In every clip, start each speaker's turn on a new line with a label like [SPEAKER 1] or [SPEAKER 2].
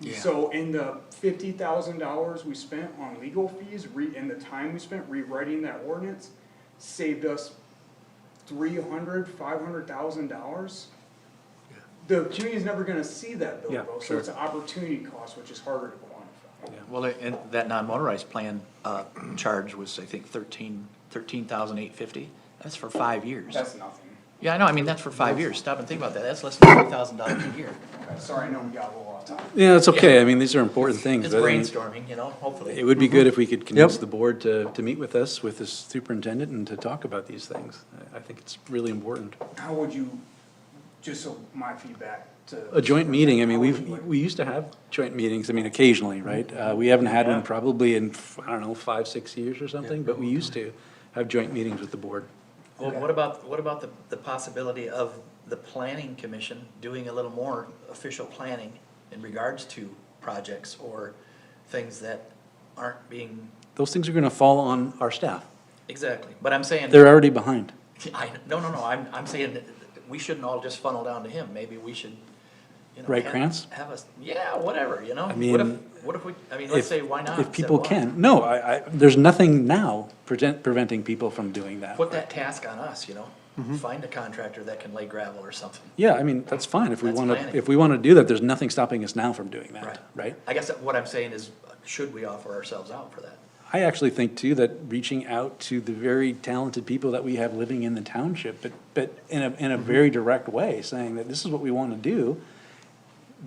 [SPEAKER 1] Yeah.
[SPEAKER 2] So in the fifty thousand dollars we spent on legal fees, re, and the time we spent rewriting that ordinance, saved us three hundred, five hundred thousand dollars. The community's never gonna see that bill
[SPEAKER 3] Yeah,
[SPEAKER 2] though, so
[SPEAKER 3] sure.
[SPEAKER 2] it's an opportunity cost, which is harder to quantify.
[SPEAKER 3] Yeah.
[SPEAKER 1] Well, and that non-motorized plan, uh, charge was, I think, thirteen, thirteen thousand eight fifty. That's for five years.
[SPEAKER 2] That's nothing.
[SPEAKER 1] Yeah, I know, I mean, that's for five years. Stop and think about that. That's less than three thousand dollars a year.
[SPEAKER 2] Okay, Sorry, I know we got a little off topic.
[SPEAKER 4] Yeah, it's okay. I mean, these are important things.
[SPEAKER 1] It's
[SPEAKER 4] but I mean,
[SPEAKER 1] brainstorming, you know,
[SPEAKER 4] It
[SPEAKER 1] hopefully.
[SPEAKER 4] would be good if we could convince the board to, to meet with us, with the superintendent, and to talk about these things. I I think it's really important.
[SPEAKER 2] How would you, just so my feedback to.
[SPEAKER 4] A joint meeting, I mean,
[SPEAKER 2] How would
[SPEAKER 4] we've,
[SPEAKER 2] you like-
[SPEAKER 4] we used to have joint meetings, I mean, occasionally, right? Uh, we haven't had
[SPEAKER 1] Yeah.
[SPEAKER 4] one probably in, I don't know, five, six years or something, but we used to have joint meetings with the board.
[SPEAKER 1] Well, what about, what about the, the possibility of the planning commission doing a little more official planning in regards to projects or things that aren't being,
[SPEAKER 4] Those things are gonna fall on our staff.
[SPEAKER 1] exactly, but I'm saying.
[SPEAKER 4] They're already behind.
[SPEAKER 1] I, no, no, no, I'm, I'm saying that we shouldn't all just funnel down to him, maybe we should, you know.
[SPEAKER 4] Write
[SPEAKER 1] have-
[SPEAKER 4] grants?
[SPEAKER 1] Have us, yeah, whatever, you know?
[SPEAKER 4] I
[SPEAKER 1] What
[SPEAKER 4] mean,
[SPEAKER 1] if, what if we, I mean, let's
[SPEAKER 4] If-
[SPEAKER 1] say, why not?
[SPEAKER 4] If
[SPEAKER 1] Said,
[SPEAKER 4] people
[SPEAKER 1] why?
[SPEAKER 4] can. No, I, I, there's nothing now prevent, preventing people from doing that.
[SPEAKER 1] Put that task on us, you
[SPEAKER 4] Mm-hmm.
[SPEAKER 1] know? Find a contractor that can lay gravel or something.
[SPEAKER 4] Yeah, I mean, that's fine. If we
[SPEAKER 1] That's
[SPEAKER 4] wanna,
[SPEAKER 1] planning.
[SPEAKER 4] if we wanna do that, there's nothing stopping us now from doing
[SPEAKER 1] Right.
[SPEAKER 4] that, right?
[SPEAKER 1] I guess that what I'm saying is, should we offer ourselves out for that?
[SPEAKER 4] I actually think too that reaching out to the very talented people that we have living in the township, but, but in a,
[SPEAKER 1] Mm-hmm.
[SPEAKER 4] in a very direct way, saying that this is what we want to do.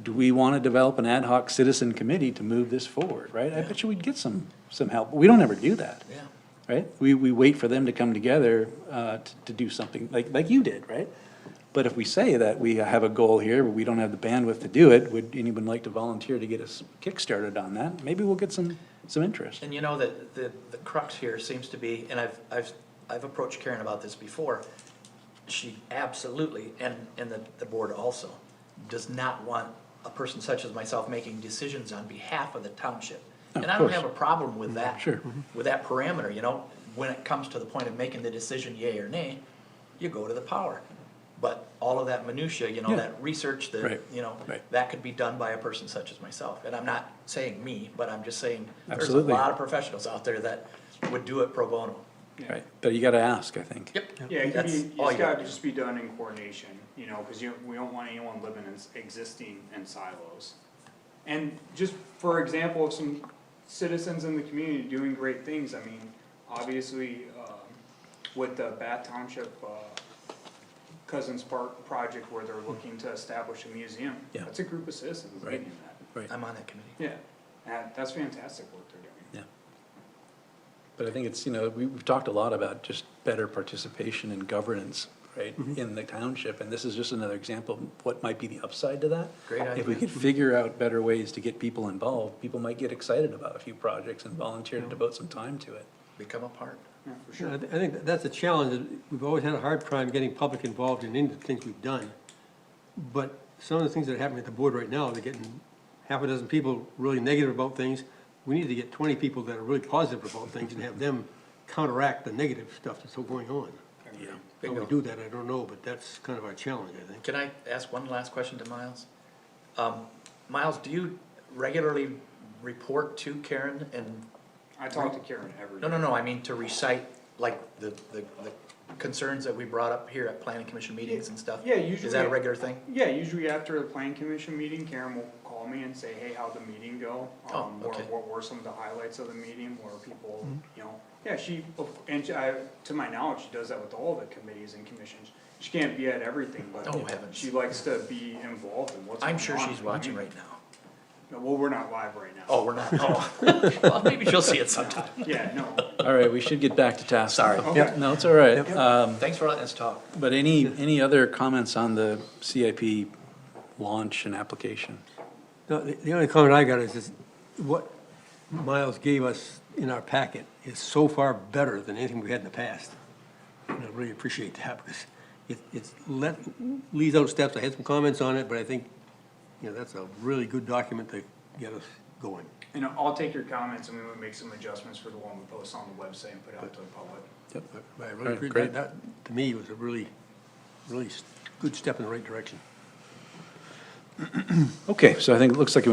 [SPEAKER 4] Do we want to develop an ad hoc citizen committee to move this forward, right? I bet you we'd get some, some help. We don't ever do that,
[SPEAKER 1] Yeah,
[SPEAKER 4] right? We, we wait for them to come together, uh, to, to do something like, like you did, right? But if we say that we have a goal here, but we don't have the bandwidth to do it, would anyone like to volunteer to get us kickstarted on that? Maybe we'll get some, some interest.
[SPEAKER 1] and you know that, the, the crux here seems to be, and I've, I've, I've approached Karen about this before. She absolutely, and, and the, the board also, does not want a person such as myself making decisions on behalf of the township. And I don't
[SPEAKER 4] course. Mm-hmm.
[SPEAKER 1] have a problem with that.
[SPEAKER 4] sure.
[SPEAKER 1] With that parameter, you know, when it comes to the point of making the decision yea or nay, you go to the power. But all of that minutia, you know,
[SPEAKER 4] Yeah.
[SPEAKER 1] that research, the,
[SPEAKER 4] Right,
[SPEAKER 1] you know,
[SPEAKER 4] right.
[SPEAKER 1] that could be done by a person such as myself. And I'm not saying me, but I'm just saying, there's a
[SPEAKER 4] Absolutely.
[SPEAKER 1] lot of professionals out there that would do it pro bono.
[SPEAKER 2] Yeah.
[SPEAKER 4] Right, but you gotta ask, I think.
[SPEAKER 1] Yep.
[SPEAKER 2] Yeah, it could
[SPEAKER 1] That's
[SPEAKER 2] be,
[SPEAKER 1] all
[SPEAKER 2] it's
[SPEAKER 1] you
[SPEAKER 2] gotta
[SPEAKER 1] got.
[SPEAKER 2] just be done in coordination, you know, cause you, we don't want anyone living in, s- existing in silos. And just for example, of some citizens in the community doing great things, I mean, obviously, um, with the Bath Township, uh, Cousins Park project where they're looking to establish a museum.
[SPEAKER 4] Yeah.
[SPEAKER 2] That's a group of citizens
[SPEAKER 4] Right.
[SPEAKER 2] leading that,
[SPEAKER 4] Right,
[SPEAKER 1] I'm on that committee.
[SPEAKER 2] yeah, and that's fantastic work they're doing.
[SPEAKER 4] yeah. But I think it's, you know, we- we've talked a lot about just better participation and governance, right,
[SPEAKER 1] Mm-hmm.
[SPEAKER 4] in the township. And this is just another example of what might be the upside to that.
[SPEAKER 1] Great
[SPEAKER 4] If we
[SPEAKER 1] idea.
[SPEAKER 4] could figure out better ways to get people involved, people might get excited about a few projects and volunteer to devote some time to it.
[SPEAKER 1] Become a part.
[SPEAKER 2] Yeah, for
[SPEAKER 5] Yeah,
[SPEAKER 2] sure.
[SPEAKER 5] I thi- I think that- that's a challenge, that we've always had a hard time getting public involved in any of the things we've done. But some of the things that are happening at the board right now, they're getting half a dozen people really negative about things. We need to get twenty people that are really positive about things and have them counteract the negative stuff that's still going on. How we
[SPEAKER 1] Bingo.
[SPEAKER 5] do that, I don't know, but that's kind of our challenge, I think.
[SPEAKER 1] Can I ask one last question to Miles? Um, Miles, do you regularly report to Karen and,
[SPEAKER 2] I talk to Karen every day.
[SPEAKER 1] no, no, no, I mean to recite like the, the, the concerns that we brought up here at planning commission meetings and stuff?
[SPEAKER 2] Yeah,
[SPEAKER 1] Is that
[SPEAKER 2] usually-
[SPEAKER 1] a regular thing?
[SPEAKER 2] Yeah, usually after the planning commission meeting, Karen will call me and say, hey, how'd the meeting go?
[SPEAKER 1] Oh,
[SPEAKER 2] Um, what-
[SPEAKER 1] okay. Mm-hmm.
[SPEAKER 2] What were some of the highlights of the meeting, where people, you know, yeah, she, and she- I, to my knowledge, she does that with all the committees and commissions. She can't be at everything, but
[SPEAKER 1] Oh, heavens.
[SPEAKER 2] she likes to be involved in what's going on.
[SPEAKER 1] I'm sure she's
[SPEAKER 2] I
[SPEAKER 1] watching
[SPEAKER 2] mean,
[SPEAKER 1] right now.
[SPEAKER 2] no, Well, we're not live right now.
[SPEAKER 1] Oh, we're not, oh, well, maybe she'll see it sometime.
[SPEAKER 2] Yeah, no,
[SPEAKER 4] All right, we should get back to task.
[SPEAKER 1] Sorry.
[SPEAKER 2] Okay.
[SPEAKER 4] No, it's all right. Um,
[SPEAKER 1] Thanks for letting us talk.
[SPEAKER 4] But any, any other comments on the CIP launch and application?
[SPEAKER 5] No, The the only comment I got is, is what Miles gave us in our packet is so far better than anything we had in the past. And I really appreciate that, because it, it's let, leaves out steps, I had some comments on it, but I think, you know, that's a really good document to get us going.
[SPEAKER 2] and I'll take your comments and we would make some adjustments for the one we post on the website and put out to the public.
[SPEAKER 4] Yep.
[SPEAKER 5] But but I
[SPEAKER 4] All
[SPEAKER 5] really
[SPEAKER 4] right,
[SPEAKER 5] appreciate
[SPEAKER 4] great.
[SPEAKER 5] that, that, to me, was a really, really s- good step in the right direction.
[SPEAKER 4] Okay, so I think it looks like